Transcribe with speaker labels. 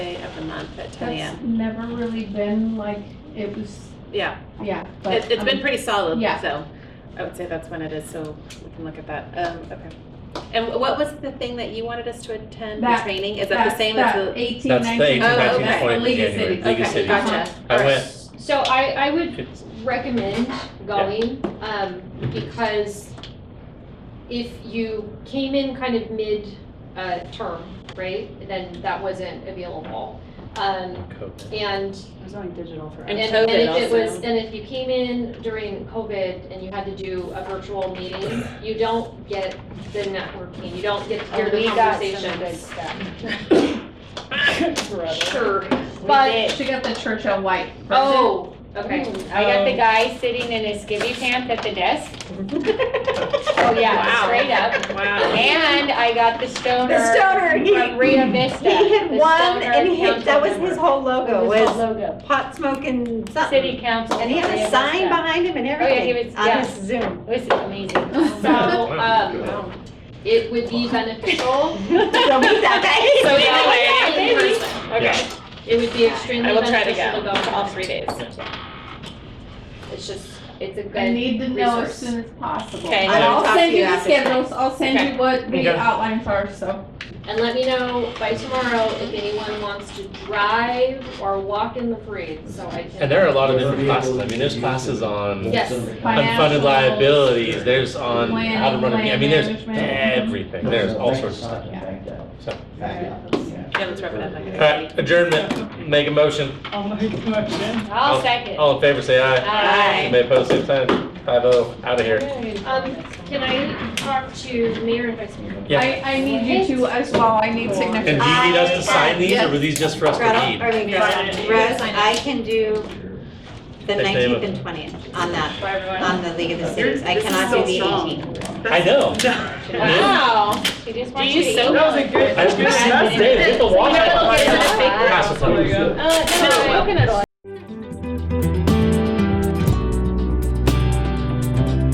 Speaker 1: a month at ten AM.
Speaker 2: That's never really been like, it was,
Speaker 1: Yeah,
Speaker 2: yeah. but,
Speaker 1: it, it's
Speaker 2: um,
Speaker 1: been pretty solid,
Speaker 2: yeah.
Speaker 1: so I would say that's when it is, so we can look at that. Um, okay. And what was the thing that you wanted us to attend, the
Speaker 2: That-
Speaker 1: training? Is that the
Speaker 2: that's
Speaker 1: same as
Speaker 2: that
Speaker 1: the?
Speaker 2: 18,
Speaker 3: That's the
Speaker 1: 18,
Speaker 2: 19, that's
Speaker 1: 19,
Speaker 2: the
Speaker 3: 20
Speaker 2: League of
Speaker 3: January.
Speaker 2: Cities.
Speaker 3: League of
Speaker 1: Okay,
Speaker 3: Cities.
Speaker 1: gotcha.
Speaker 3: I went,
Speaker 4: So I, I would
Speaker 3: it's,
Speaker 4: recommend going, um, because if you came in kind of mid-term, right, then that wasn't available. Um,
Speaker 3: COVID.
Speaker 4: And
Speaker 5: It was only digital for
Speaker 1: And
Speaker 5: us.
Speaker 4: and,
Speaker 1: COVID
Speaker 4: and if it was,
Speaker 1: also.
Speaker 4: and if you came in during COVID and you had to do a virtual meeting, you don't get the networking, you don't get to hear the
Speaker 5: Oh, We got some good
Speaker 4: conversations.
Speaker 5: stuff.
Speaker 4: Sure,
Speaker 5: But-
Speaker 4: but,
Speaker 2: She got the Churchill White.
Speaker 4: oh, okay.
Speaker 5: I got the guy sitting in his skivvy pants at the desk. Oh, yeah,
Speaker 1: Wow.
Speaker 5: straight up.
Speaker 1: Wow.
Speaker 5: And I got the stoner.
Speaker 6: The stoner, he-
Speaker 5: From Rio Vista.
Speaker 6: He had
Speaker 5: the
Speaker 6: one
Speaker 5: stoner
Speaker 6: and he had,
Speaker 5: council
Speaker 6: that was his
Speaker 5: member.
Speaker 6: whole logo,
Speaker 5: His whole
Speaker 6: was
Speaker 5: logo.
Speaker 6: pot smoking
Speaker 5: City
Speaker 6: something.
Speaker 5: council.
Speaker 6: And he had
Speaker 5: of Rio
Speaker 6: a sign
Speaker 5: Vista.
Speaker 6: behind him and
Speaker 5: yeah, he
Speaker 6: everything
Speaker 5: was-
Speaker 6: on
Speaker 5: yeah.
Speaker 6: his Zoom.
Speaker 5: This is amazing.
Speaker 4: So, um, it would be beneficial.
Speaker 6: So he's okay.
Speaker 1: So
Speaker 4: Yeah,
Speaker 1: anyway,
Speaker 4: in person.
Speaker 1: okay,
Speaker 4: It would be extremely
Speaker 1: I will try to
Speaker 4: beneficial
Speaker 1: go
Speaker 4: go.
Speaker 1: to all three days.
Speaker 4: It's just, it's a
Speaker 2: I
Speaker 4: good,
Speaker 2: need to know as
Speaker 4: resource.
Speaker 2: soon as possible.
Speaker 1: Okay,
Speaker 2: And
Speaker 1: I'll
Speaker 2: I'll
Speaker 1: talk
Speaker 2: send
Speaker 1: to
Speaker 2: you
Speaker 1: you
Speaker 2: the
Speaker 1: after.
Speaker 2: schedules, I'll send
Speaker 1: Okay.
Speaker 2: you what
Speaker 3: Okay.
Speaker 2: the outlines are, so.
Speaker 4: and let me know by tomorrow if anyone wants to drive or walk in the parade, so I can.
Speaker 3: And there are a lot of different classes. I mean, there's classes on
Speaker 4: Yes.
Speaker 3: unfunded
Speaker 2: Financial,
Speaker 3: liabilities, there's on how to run a, I mean, there's
Speaker 2: Planning, land management.
Speaker 3: everything, there's all sorts of stuff. So,
Speaker 1: Yeah, let's wrap it up.
Speaker 3: all right, adjournment, make a motion.
Speaker 5: I'll second.
Speaker 3: All in favor, say aye.
Speaker 1: Aye.
Speaker 3: You may oppose, same sign. Five oh, out of here.
Speaker 4: Um, can I talk to mayor and vice mayor?
Speaker 3: Yeah.
Speaker 2: I, I need you to as well, I need
Speaker 3: And do
Speaker 2: signatures.
Speaker 3: you need us to sign these, or were these just for us to
Speaker 6: Gretel,
Speaker 3: read?
Speaker 6: or I mean, Gretel, Rose, I can do the
Speaker 3: They say-
Speaker 6: nineteenth and twentieth on that,
Speaker 4: Bye, everyone.
Speaker 6: on the League of the Cities. I
Speaker 1: this is
Speaker 6: cannot
Speaker 1: so
Speaker 6: do the
Speaker 1: strong.
Speaker 6: eighteenth.
Speaker 3: I know.
Speaker 5: Wow. She just wants you to eat.
Speaker 1: so
Speaker 5: Uh,
Speaker 1: good.
Speaker 3: I was gonna say, Dave, get the water.
Speaker 5: Uh, no,
Speaker 3: Pass it on.
Speaker 5: no, coconut oil.